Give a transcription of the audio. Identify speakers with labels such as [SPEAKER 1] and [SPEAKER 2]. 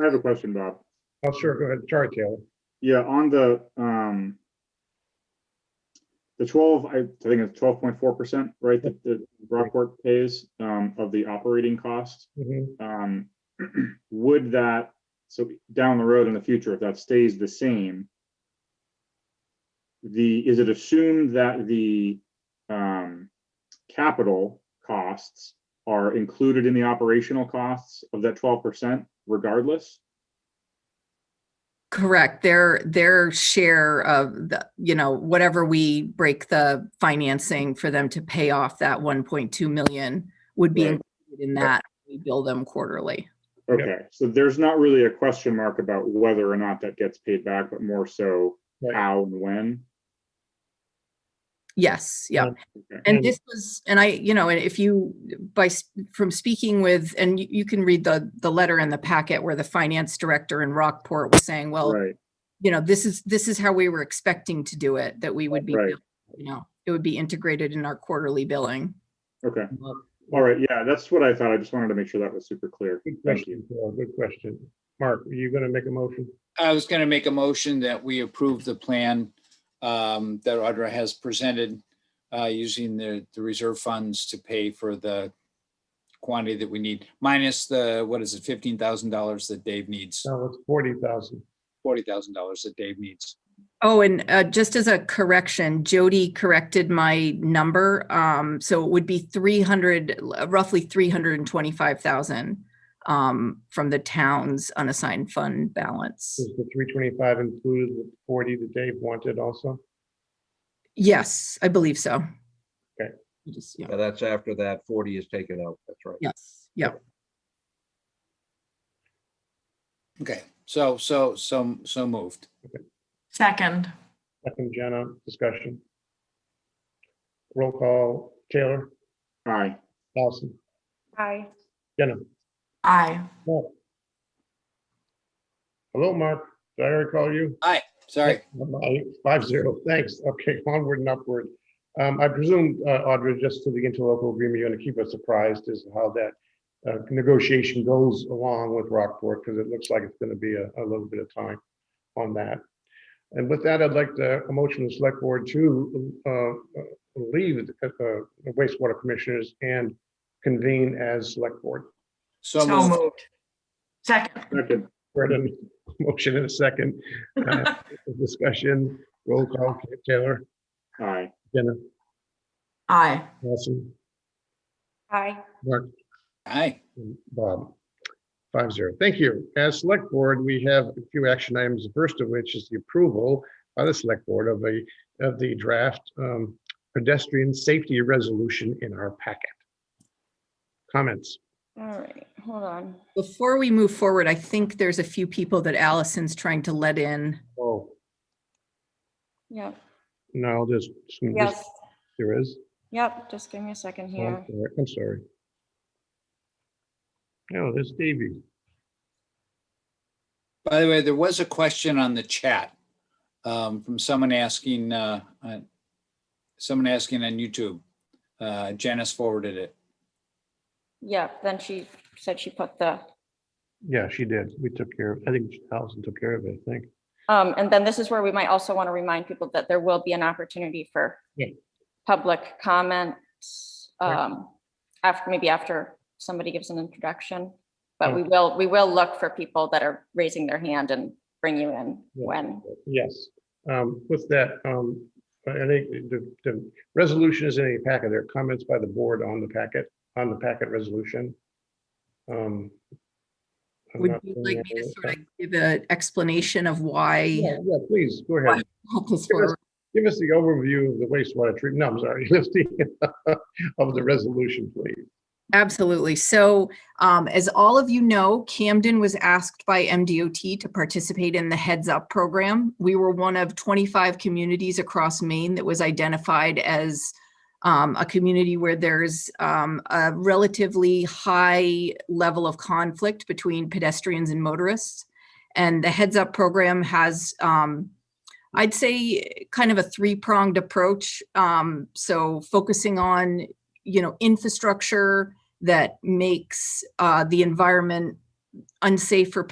[SPEAKER 1] I have a question, Bob.
[SPEAKER 2] Oh, sure, go ahead. Sorry, Taylor.
[SPEAKER 1] Yeah, on the, um, the twelve, I I think it's twelve point four percent, right, that, that Rockport pays, um, of the operating costs.
[SPEAKER 2] Mhm.
[SPEAKER 1] um, would that, so down the road in the future, if that stays the same, the, is it assumed that the, um, capital costs are included in the operational costs of that twelve percent regardless?
[SPEAKER 3] Correct. Their, their share of the, you know, whatever we break the financing for them to pay off that 1.2 million would be
[SPEAKER 1] Right.
[SPEAKER 3] included in that. We bill them quarterly.
[SPEAKER 1] Okay, so there's not really a question mark about whether or not that gets paid back, but more so
[SPEAKER 2] Right.
[SPEAKER 1] how and when?
[SPEAKER 3] Yes, yeah.
[SPEAKER 1] Okay.
[SPEAKER 3] And
[SPEAKER 2] And-
[SPEAKER 3] this was, and I, you know, and if you, by, s- from speaking with, and you- you can read the, the letter in the packet where the finance director in Rockport was saying, well,
[SPEAKER 1] Right,
[SPEAKER 3] you know, this is, this is how we were expecting to do it, that we would be,
[SPEAKER 1] Right.
[SPEAKER 3] bill- you know, it would be integrated in our quarterly billing.
[SPEAKER 1] okay,
[SPEAKER 3] Well,
[SPEAKER 1] all right, yeah, that's what I thought. I just wanted to make sure that was super clear.
[SPEAKER 2] Good
[SPEAKER 1] Thank you.
[SPEAKER 2] question, Taylor. Good question. Mark, are you going to make a motion?
[SPEAKER 4] I was going to make a motion that we approve the plan um, that Audra has presented uh, using the, the reserve funds to pay for the quantity that we need, minus the, what is it, $15,000 that Dave needs,
[SPEAKER 2] No, it's forty thousand.
[SPEAKER 4] $40,000 that Dave needs.
[SPEAKER 3] Oh, and uh, just as a correction, Jody corrected my number. Um, So it would be 300, l- roughly 325,000 um, from the town's unassigned fund balance.
[SPEAKER 2] Is the three twenty-five included with forty that Dave wanted also?
[SPEAKER 3] Yes, I believe so.
[SPEAKER 2] Okay.
[SPEAKER 3] I just- yeah.
[SPEAKER 5] Yeah, that's after that forty is taken out, that's right.
[SPEAKER 3] Yes, yeah.
[SPEAKER 4] Okay, so, so, so, so moved.
[SPEAKER 6] Second,
[SPEAKER 2] Second, Jenna, discussion. Roll call, Taylor,
[SPEAKER 1] Aye.
[SPEAKER 2] Allison,
[SPEAKER 7] Aye.
[SPEAKER 2] Jenna.
[SPEAKER 6] aye.
[SPEAKER 2] Mark. Hello, Mark. Did I recall you?
[SPEAKER 4] Sorry.
[SPEAKER 2] Five zero, thanks. Okay, onward and upward. Um, I presume, uh, Audra, just to the interlocal agreement, you're gonna keep us surprised as to how that uh, negotiation goes along with Rockport, because it looks like it's gonna be a, a little bit of time on that. And with that, I'd like to, a motion to select board to, uh, uh, leave the uh, the wastewater commissioners and convene as select board.
[SPEAKER 4] So
[SPEAKER 6] So
[SPEAKER 4] moved.
[SPEAKER 6] moved. Second,
[SPEAKER 1] Second,
[SPEAKER 2] We're at a motion in a second. Uh, Discussion, roll call, Taylor,
[SPEAKER 1] aye.
[SPEAKER 2] Jenna.
[SPEAKER 6] aye.
[SPEAKER 2] Nelson,
[SPEAKER 7] Aye.
[SPEAKER 2] Mark,
[SPEAKER 4] Aye.
[SPEAKER 2] and Bob. Five zero. Thank you. As select board, we have a few action items, the first of which is the approval by the select board of a, of the draft um, pedestrian safety resolution in our packet. Comments?
[SPEAKER 7] All right, hold on.
[SPEAKER 3] Before we move forward, I think there's a few people that Allison's trying to let in.
[SPEAKER 2] Oh,
[SPEAKER 7] Yep,
[SPEAKER 2] no, there's, some- there's-
[SPEAKER 7] yes,
[SPEAKER 2] there is.
[SPEAKER 7] yep, just give me a second
[SPEAKER 2] Oh, I'm
[SPEAKER 7] here.
[SPEAKER 2] sorry. I'm sorry. No, there's Davey.
[SPEAKER 4] By the way, there was a question on the chat um, from someone asking, uh, uh, someone asking on YouTube. Uh, Janice forwarded it.
[SPEAKER 7] Yep, then she said she put the,
[SPEAKER 2] Yeah, she did. We took care, of. I think Allison took care of it, I think.
[SPEAKER 7] um, and then this is where we might also want to remind people that there will be an opportunity for
[SPEAKER 2] Yeah.
[SPEAKER 7] public comments,
[SPEAKER 2] Right.
[SPEAKER 7] um, after, maybe after somebody gives an introduction.
[SPEAKER 2] Oh.
[SPEAKER 7] But we will, we will look for people that are raising their hand and bring you in
[SPEAKER 2] Yeah.
[SPEAKER 7] when,
[SPEAKER 2] Yes, um, with that, um, I think the, the resolution is in a packet. There are comments by the board on the packet, on the packet resolution. Um, I'm
[SPEAKER 3] Would
[SPEAKER 2] not
[SPEAKER 3] you
[SPEAKER 2] seeing
[SPEAKER 3] like me to
[SPEAKER 2] any-
[SPEAKER 3] sort of give an explanation of why?
[SPEAKER 2] Yeah, yeah, please, go ahead.
[SPEAKER 3] help us forward?
[SPEAKER 2] Give us the overview of the wastewater treatment, no, I'm sorry, Let's see, of the resolution, please.
[SPEAKER 3] Absolutely. So, um, as all of you know, Camden was asked by MDOT to participate in the Heads Up program. We were one of 25 communities across Maine that was identified as um, a community where there's um, a relatively high level of conflict between pedestrians and motorists. And the Heads Up program has um, I'd say kind of a three-pronged approach. Um, so focusing on, you know, infrastructure that makes uh, the environment unsafe for